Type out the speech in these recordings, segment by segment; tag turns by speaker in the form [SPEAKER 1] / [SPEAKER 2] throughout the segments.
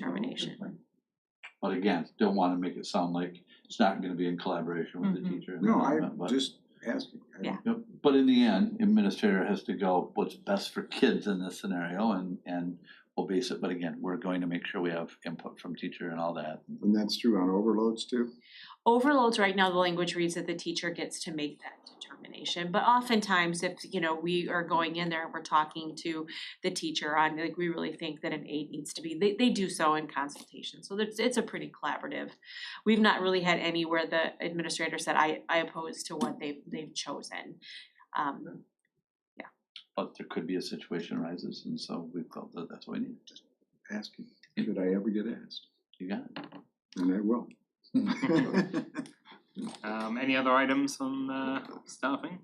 [SPEAKER 1] determination.
[SPEAKER 2] But again, don't wanna make it sound like it's not gonna be in collaboration with the
[SPEAKER 1] Mhm.
[SPEAKER 2] teacher and the
[SPEAKER 3] No,
[SPEAKER 2] government,
[SPEAKER 3] I'm
[SPEAKER 2] but.
[SPEAKER 3] just asking. I-
[SPEAKER 1] Yeah.
[SPEAKER 2] Yep, But in the end, administrator has to go, what's best for kids in this scenario and, and we'll base it, but again, we're going to make sure we have input from teacher and all that.
[SPEAKER 3] And that's true on overloads too?
[SPEAKER 1] Overloads, right now, the language reads that the teacher gets to make that determination, but oftentimes if, you know, we are going in there and we're talking to the teacher on, like, we really think that an eight needs to be, they they do so in consultation, so it's it's a pretty collaborative. We've not really had any where the administrator said, I I oppose to what they've they've chosen. Um,
[SPEAKER 2] But there could be a situation arises and so we felt that that's what we need.
[SPEAKER 3] Asking, should I ever get asked?
[SPEAKER 2] You got it?
[SPEAKER 3] And I will.
[SPEAKER 4] Um, any other items on uh, staffing?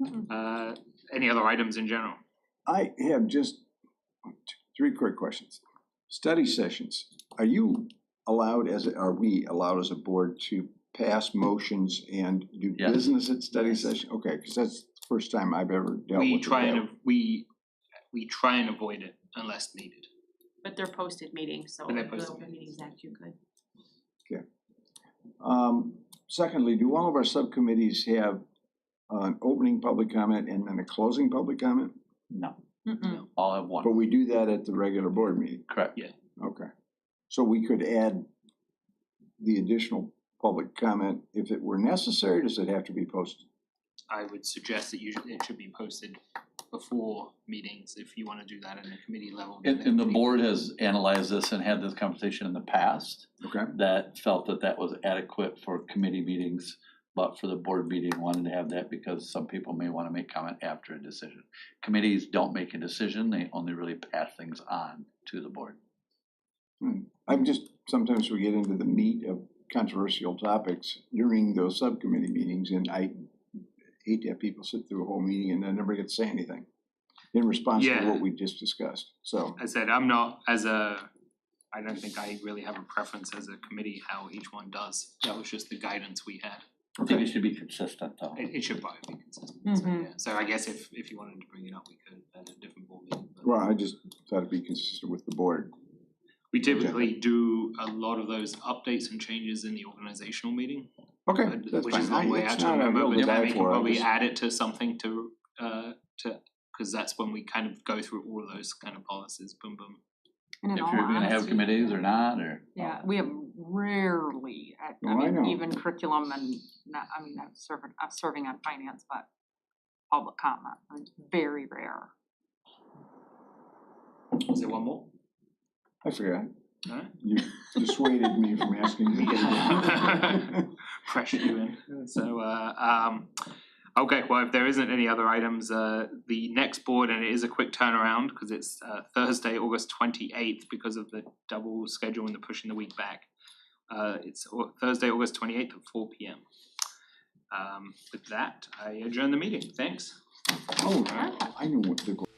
[SPEAKER 1] Mm-mm.
[SPEAKER 4] Uh, any other items in general?
[SPEAKER 3] I have just one, two, three quick questions. Study sessions, are you allowed as, a- are we allowed as a board to pass motions and do
[SPEAKER 2] Yes.
[SPEAKER 3] business at study session? Okay, cause that's the first time I've ever dealt with
[SPEAKER 4] We
[SPEAKER 3] it
[SPEAKER 4] try
[SPEAKER 3] that
[SPEAKER 4] and, av- we, we try and avoid it unless needed.
[SPEAKER 1] but they're posted meetings, so
[SPEAKER 4] But they're
[SPEAKER 1] under the
[SPEAKER 4] posted
[SPEAKER 1] open meetings act, you could.
[SPEAKER 3] Um, secondly, do all of our subcommittees have an opening public comment and then a closing public comment?
[SPEAKER 2] No,
[SPEAKER 1] Mm-mm.
[SPEAKER 2] all at
[SPEAKER 3] But
[SPEAKER 2] one,
[SPEAKER 3] we do that at the regular board meeting,
[SPEAKER 2] correct.
[SPEAKER 3] okay. So we could add the additional public comment if it were necessary, does it have to be posted?
[SPEAKER 4] I would suggest that usually it should be posted before meetings if you wanna do that in a committee level. then
[SPEAKER 2] And, and the
[SPEAKER 4] committee-
[SPEAKER 2] board has analyzed this and had this conversation in the past
[SPEAKER 3] Okay.
[SPEAKER 2] that felt that that was adequate for committee meetings, but for the board meeting, wanted to have that because some people may wanna make comment after a decision. Committees don't make a decision, they only really pass things on to the board.
[SPEAKER 3] I'm just, sometimes we get into the meat of controversial topics during those subcommittee meetings and I hate to have people sit through a whole meeting and then never get to say anything in response to
[SPEAKER 4] Yeah.
[SPEAKER 3] what we just discussed, so.
[SPEAKER 4] I said, I'm not, as a, I don't think I really have a preference as a committee how each one does. That was just the guidance we had.
[SPEAKER 2] I think it should be consistent though.
[SPEAKER 4] It, it should probably be consistent,
[SPEAKER 5] mm-hmm.
[SPEAKER 4] so,
[SPEAKER 1] Mhm.
[SPEAKER 4] yeah. So I guess if, if you wanted to bring it up, we could at a different board meeting. but-
[SPEAKER 3] Well, I just thought it'd be consistent with the board.
[SPEAKER 4] We typically do a lot of those updates and changes in the organizational meeting,
[SPEAKER 3] Okay,
[SPEAKER 4] but-
[SPEAKER 3] that's
[SPEAKER 4] which is
[SPEAKER 3] fine.
[SPEAKER 4] the
[SPEAKER 3] I-
[SPEAKER 4] way I
[SPEAKER 3] it's
[SPEAKER 4] to
[SPEAKER 3] not a
[SPEAKER 4] remember,
[SPEAKER 3] hill
[SPEAKER 4] but
[SPEAKER 3] to
[SPEAKER 4] then
[SPEAKER 3] die
[SPEAKER 4] we can
[SPEAKER 3] for, I
[SPEAKER 4] probably
[SPEAKER 3] just-
[SPEAKER 4] add it to something to, uh, to, cause that's when we kind of go through all of those kind of policies, boom, boom.
[SPEAKER 5] And in
[SPEAKER 2] If
[SPEAKER 5] all
[SPEAKER 2] you're gonna have
[SPEAKER 5] honesty,
[SPEAKER 2] committees or not, or.
[SPEAKER 5] Yeah, we have rarely, I-
[SPEAKER 3] No,
[SPEAKER 5] I
[SPEAKER 3] I
[SPEAKER 5] mean,
[SPEAKER 3] know.
[SPEAKER 5] even curriculum and not, I mean, I'm serving, I'm serving on finance, but public comment, I mean, very rare.
[SPEAKER 4] Is there one more?
[SPEAKER 3] I forgot.
[SPEAKER 4] Alright.
[SPEAKER 3] You dissuaded me from asking. you.
[SPEAKER 4] Yeah. pressure you in. So, uh, um, okay, well, if there isn't any other items, uh, the next board, and it is a quick turnaround, because it's, uh, Thursday, August twenty-eighth, because of the double schedule and the pushing the week back. Uh, it's au- Thursday, August twenty-eighth at four P M. Um, with that, I adjourn the meeting, thanks.
[SPEAKER 3] Oh, I know what the.